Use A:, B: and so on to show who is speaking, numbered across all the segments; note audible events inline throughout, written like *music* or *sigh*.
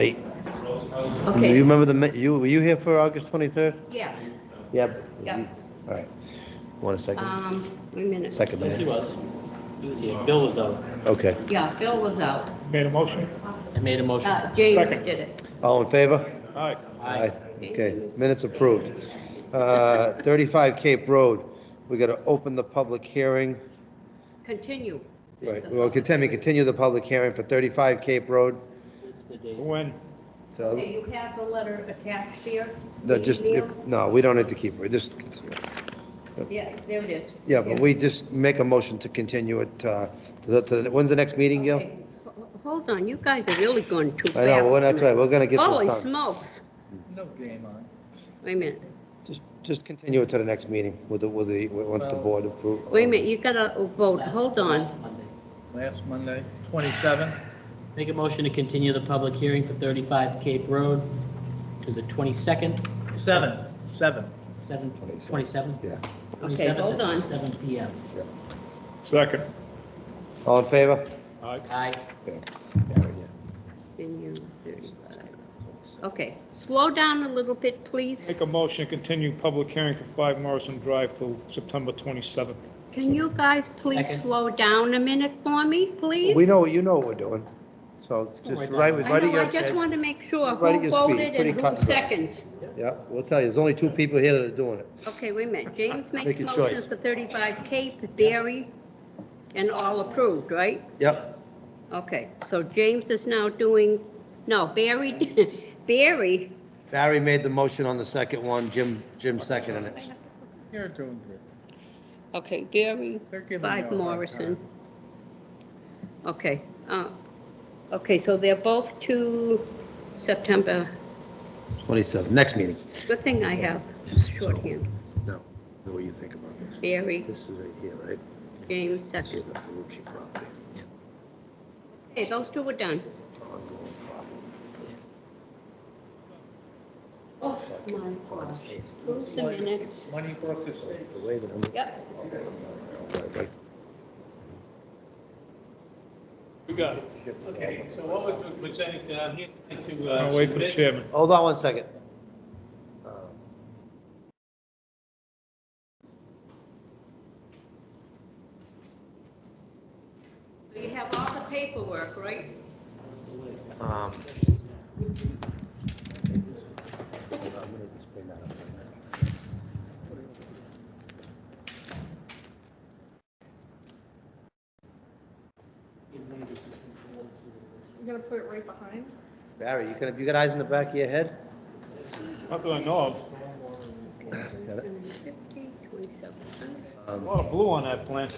A: Hey, You
B: Okay,
A: remember the, mi- you, were you here for August 23rd?
B: yes,
A: Yep.
B: Yep.
A: All right. Want a second?
B: um, wait a minute.
A: Second the
C: Yes, he
A: minutes?
C: was. He was here. Bill was out.
A: Okay.
B: Yeah, Bill was out.
D: Made a motion.
C: I made a motion.
B: Uh, James
D: Second.
B: did it.
A: All in favor?
D: All right.
C: Aye.
A: Okay, minutes approved. Uh, 35 Cape Road, we got to open the public hearing.
B: Continue.
A: Right, we'll continue, continue the public hearing for 35 Cape Road.
C: It's the date.
D: When?
B: Do
A: So,
B: you have the letter attached here?
A: Uh, no,
B: The
A: just,
B: email?
A: no, we don't need to keep, it. just,
B: Yeah, there it is.
A: yeah, but we just make a motion to continue it. uh, to the- to the- When's the next meeting, Gil?
B: Okay, ho- Hold on, you guys are really going too fast.
A: I know, well, that's right, we're going to get
B: Holy
A: this done.
B: smokes.
E: No game on.
B: Wait a minute,
A: Just, just continue it to the next meeting with the, with the, once the board approves.
B: wait a minute, you gotta oh, vote, hold on.
C: Last Monday.
E: Last Monday, 27.
C: Make a motion to continue the public hearing for 35 Cape Road to the 22nd.
E: Seven. Seven.
C: 7, 27?
A: Yeah.
B: Okay, hold on.
C: 7 PM.
D: Second.
A: All in favor?
D: All right.
C: Aye.
A: Yeah.
B: Continue 35. Okay, slow down a little bit, please.
D: Make a motion to continue public hearing for 5 Morrison Drive till September 27th.
B: Can you guys please
C: Second.
B: slow down a minute for me, please?
A: We know, you know what we're doing, so it's
C: Don't
A: just
C: worry
A: right,
C: about it.
B: I
A: right at
B: know, I
A: your
B: just
A: chair.
B: want to make sure
A: Right at
B: who
A: your speed,
B: voted
A: pretty
B: and
A: cut and
B: who
A: dry.
B: seconds.
A: Yeah, we'll tell you, there's only two people here that are doing it.
B: Okay, wait a minute, James makes
A: Make your
B: motions
A: choice.
B: for 35 Cape, Barry, and all approved, right?
A: Yep,
B: Okay, so James is now doing, no, Barry, *laughs* Barry,
A: Barry made the motion on the second one, Jim, Jim seconded it.
E: You're doing good.
B: okay, Barry,
E: They're giving you a
B: 5
E: hard
B: Morrison. Okay, uh, okay, so they're both to September,
A: Twenty-seven, next meeting.
B: good thing I have shorthand,
A: No, know what you think about this.
B: Barry,
A: This is right here, right?
B: James
A: This is
B: second.
A: the Ferrucci property,
B: Okay, those two were done.
A: ongoing property.
B: Oh, my God. Who's the minutes?
E: Moneybrook Estates.
A: The way that I'm.
B: Yep,
A: Right,
F: You got it.
A: right.
F: Okay, so what we're presenting, uh, I'm here to, uh.
D: I'll wait for the
F: submit-
D: chairman.
A: Hold on one second. Uh,
B: you have all the paperwork, right?
A: um, hold on, I'm gonna just clean that up right now.
G: You're gonna put it right behind?
A: Barry, you got, you got eyes in the back of your head?
D: Not that I know of.
A: Got it?
B: 150, 27.
D: A
A: Um,
D: lot of blue on that plan.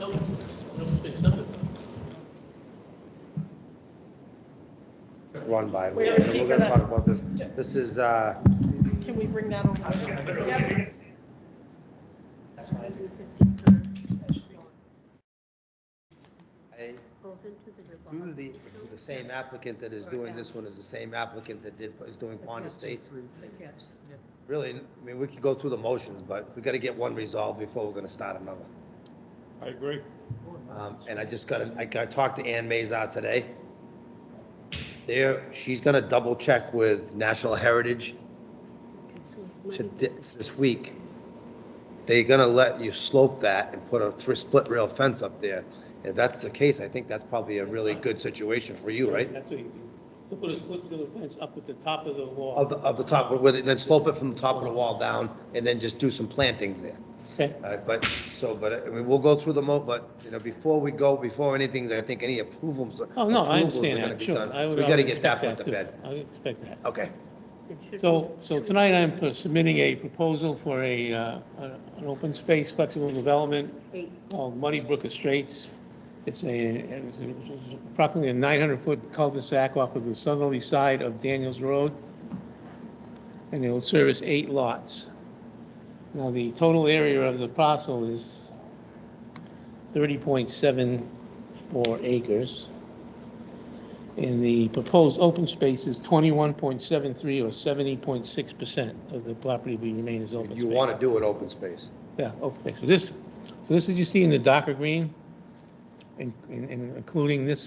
C: No, no, it's not.
A: Run by,
G: Wait,
A: we're
G: let's see,
A: we're gonna
G: hold
A: talk
G: on.
A: about this. This is, uh,
G: Can we bring that over? Yep.
A: I-
B: Goes into the
A: who
B: revolving.
A: the, the same applicant that is doing this one is the same applicant that did, is doing Pond Estates.
B: Yes.
A: Really, I mean, we could go through the motions, but we gotta get one resolved before we're gonna start another.
D: I agree.
A: Um, and I just got, I got, talked to Ann Mazar today. There, she's gonna double check with National Heritage
B: Okay, so
A: to,
B: money-
A: di- this week. They're gonna let you slope that and put a thr- split rail fence up there. If that's the case, I think that's probably a really good situation for you, right?
F: That's what you do. You put a, put the fence up at the top of the
A: Of
F: wall.
A: the, of the top, with it, then slope it from the top of the wall down, and then just do some plantings there.
F: Okay.
A: All right, but, so, but, I mean, we'll go through the mo, but, you know, before we go, before anything, I think any approvals.
F: Oh, no, I
A: approvals are
F: understand
A: gonna
F: that,
A: be
F: sure.
A: done.
F: I would-
A: We
F: I
A: gotta
F: would
A: get that one
F: expect
A: to bed.
F: too. I would expect that.
A: Okay,
B: it should
F: So, so tonight I'm submitting a proposal for a, uh, an open space flexible development
B: be eight.
F: called Oh, Muddy Brook Estates. It's a, it's approximately a 900-foot cul-de-sac off of the southerly side of Daniels Road, and it'll service eight lots. Now, the total area of the parcel is 30.74 acres, and the proposed open space is 21.73 or 70.6% of the property will remain as open space.
A: you wanna do an open space.
F: Yeah, oh, okay, so this, so this is you see in the darker green, in- in- in- including this